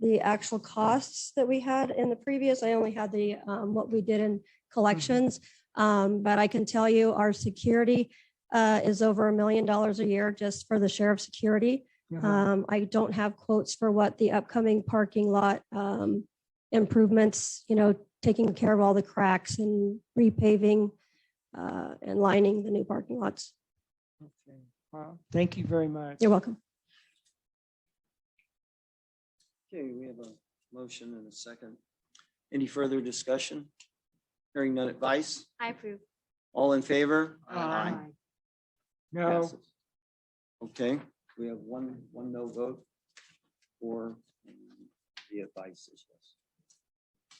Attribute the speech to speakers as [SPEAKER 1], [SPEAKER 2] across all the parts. [SPEAKER 1] the actual costs that we had in the previous. I only had the, um, what we did in collections. Um, but I can tell you our security, uh, is over a million dollars a year just for the sheriff's security.
[SPEAKER 2] Uh-huh.
[SPEAKER 1] Um, I don't have quotes for what the upcoming parking lot, um, improvements, you know, taking care of all the cracks and repaving, uh, and lining the new parking lots.
[SPEAKER 2] Okay. Wow. Thank you very much.
[SPEAKER 1] You're welcome.
[SPEAKER 3] Okay, we have a motion and a second. Any further discussion? Hearing none advice?
[SPEAKER 4] I approve.
[SPEAKER 3] All in favor?
[SPEAKER 2] Aye. No,
[SPEAKER 3] Passes. Okay, we have one, one no vote for the advice is yes.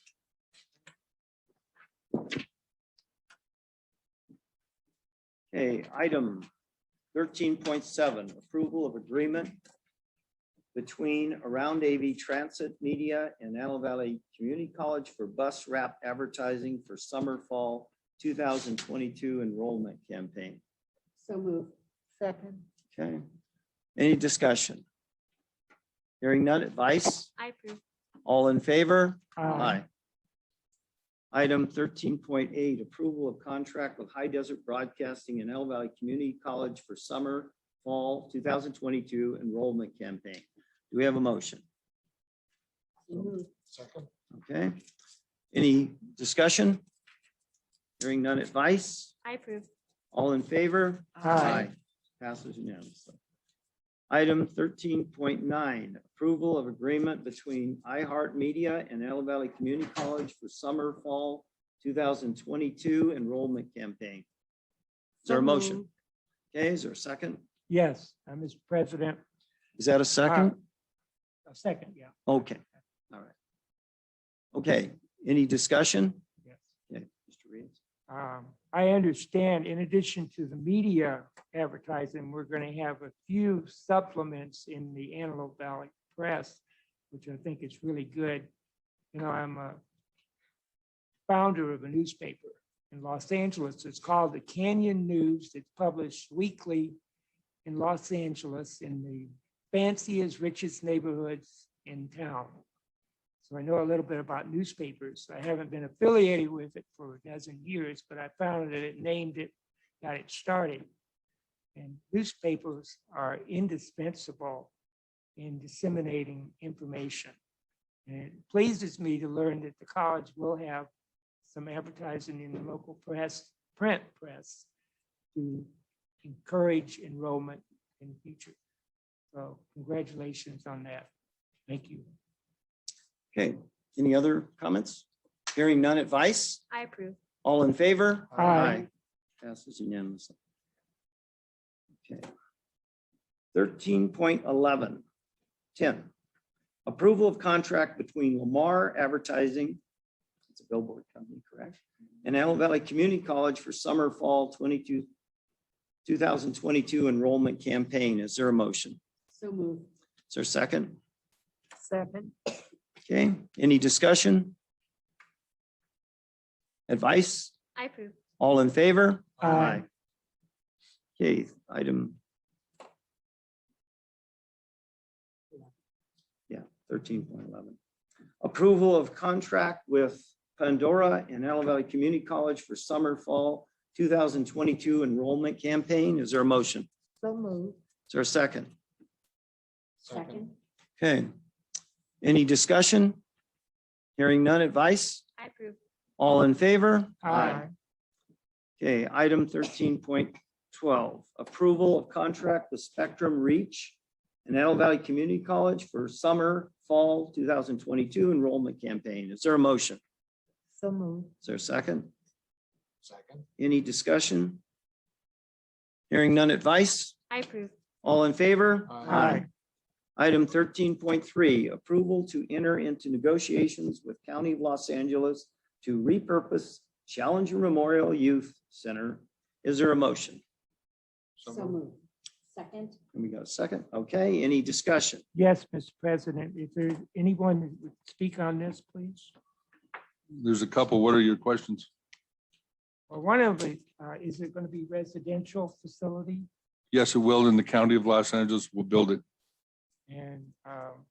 [SPEAKER 3] Okay, item thirteen point seven, approval of agreement between Around AV Transit Media and Antelope Valley Community College for bus wrap advertising for summer fall two thousand twenty-two enrollment campaign.
[SPEAKER 5] So move. Second.
[SPEAKER 3] Okay, any discussion? Hearing none advice,
[SPEAKER 4] I approve.
[SPEAKER 3] all in favor?
[SPEAKER 2] Aye.
[SPEAKER 3] Item thirteen point eight, approval of contract with High Desert Broadcasting and El Valley Community College for summer, fall two thousand twenty-two enrollment campaign. Do we have a motion?
[SPEAKER 5] So move.
[SPEAKER 3] Okay, any discussion? Hearing none advice,
[SPEAKER 4] I approve.
[SPEAKER 3] all in favor?
[SPEAKER 2] Aye.
[SPEAKER 3] Passes unanimously. Item thirteen point nine, approval of agreement between iHeartMedia and Antelope Valley Community College for summer, fall two thousand twenty-two enrollment campaign. Is there a motion? Okay, is there a second?
[SPEAKER 2] Yes, uh, Mr. President,
[SPEAKER 3] Is that a second?
[SPEAKER 2] a second, yeah,
[SPEAKER 3] Okay, all right. Okay, any discussion?
[SPEAKER 2] yes.
[SPEAKER 3] Yeah, Mr. Reeves?
[SPEAKER 2] Um, I understand, in addition to the media advertising, we're going to have a few supplements in the Antelope Valley Press, which I think is really good. You know, I'm a founder of a newspaper in Los Angeles. It's called the Canyon News. It's published weekly in Los Angeles in the fanciest, richest neighborhoods in town. So I know a little bit about newspapers. I haven't been affiliated with it for a dozen years, but I found that it named it, got it started. And newspapers are indispensable in disseminating information. And it pleases me to learn that the college will have some advertising in the local press, print press to encourage enrollment in the future. So congratulations on that. Thank you.
[SPEAKER 3] Okay, any other comments? Hearing none advice?
[SPEAKER 4] I approve.
[SPEAKER 3] All in favor?
[SPEAKER 2] Aye. Aye.
[SPEAKER 3] Passes unanimously. Okay. Thirteen point eleven, ten, approval of contract between Lamar Advertising, it's a billboard company, correct? And Antelope Valley Community College for summer, fall twenty-two, two thousand twenty-two enrollment campaign. Is there a motion?
[SPEAKER 5] So move.
[SPEAKER 3] Is there a second?
[SPEAKER 5] Second.
[SPEAKER 3] Okay, any discussion? Advice?
[SPEAKER 4] I approve.
[SPEAKER 3] All in favor?
[SPEAKER 2] Aye.
[SPEAKER 3] Okay, item. Yeah, thirteen point eleven. Approval of contract with Pandora and Antelope Valley Community College for summer, fall two thousand twenty-two enrollment campaign. Is there a motion? Is
[SPEAKER 5] So move.
[SPEAKER 3] there a second?
[SPEAKER 5] Second.
[SPEAKER 3] Okay. Any discussion? Hearing none advice?
[SPEAKER 4] I approve.
[SPEAKER 3] All in favor?
[SPEAKER 2] Aye.
[SPEAKER 3] Okay, item thirteen point twelve, approval of contract with Spectrum Reach and Antelope Valley Community College for summer, fall two thousand twenty-two enrollment campaign. Is there a motion?
[SPEAKER 5] So move.
[SPEAKER 3] Is there a second?
[SPEAKER 6] Second.
[SPEAKER 3] Any discussion? Hearing none advice?
[SPEAKER 4] I approve.
[SPEAKER 3] All in favor?
[SPEAKER 2] Uh,
[SPEAKER 6] Aye.
[SPEAKER 3] Item thirteen point three, approval to enter into negotiations with County of Los Angeles to repurpose Challenger Memorial Youth Center. Is there a motion?
[SPEAKER 6] So
[SPEAKER 5] So
[SPEAKER 6] moved.
[SPEAKER 5] move. Second.
[SPEAKER 3] And we got a second. Okay, any discussion?
[SPEAKER 2] Yes, Mr. President, if there's anyone that would speak on this, please.
[SPEAKER 6] There's a couple. What are your questions?
[SPEAKER 2] Well, one of it, uh, is it going to be residential facility?
[SPEAKER 6] Yes, it will in the county of Los Angeles. We'll build it.
[SPEAKER 2] And um,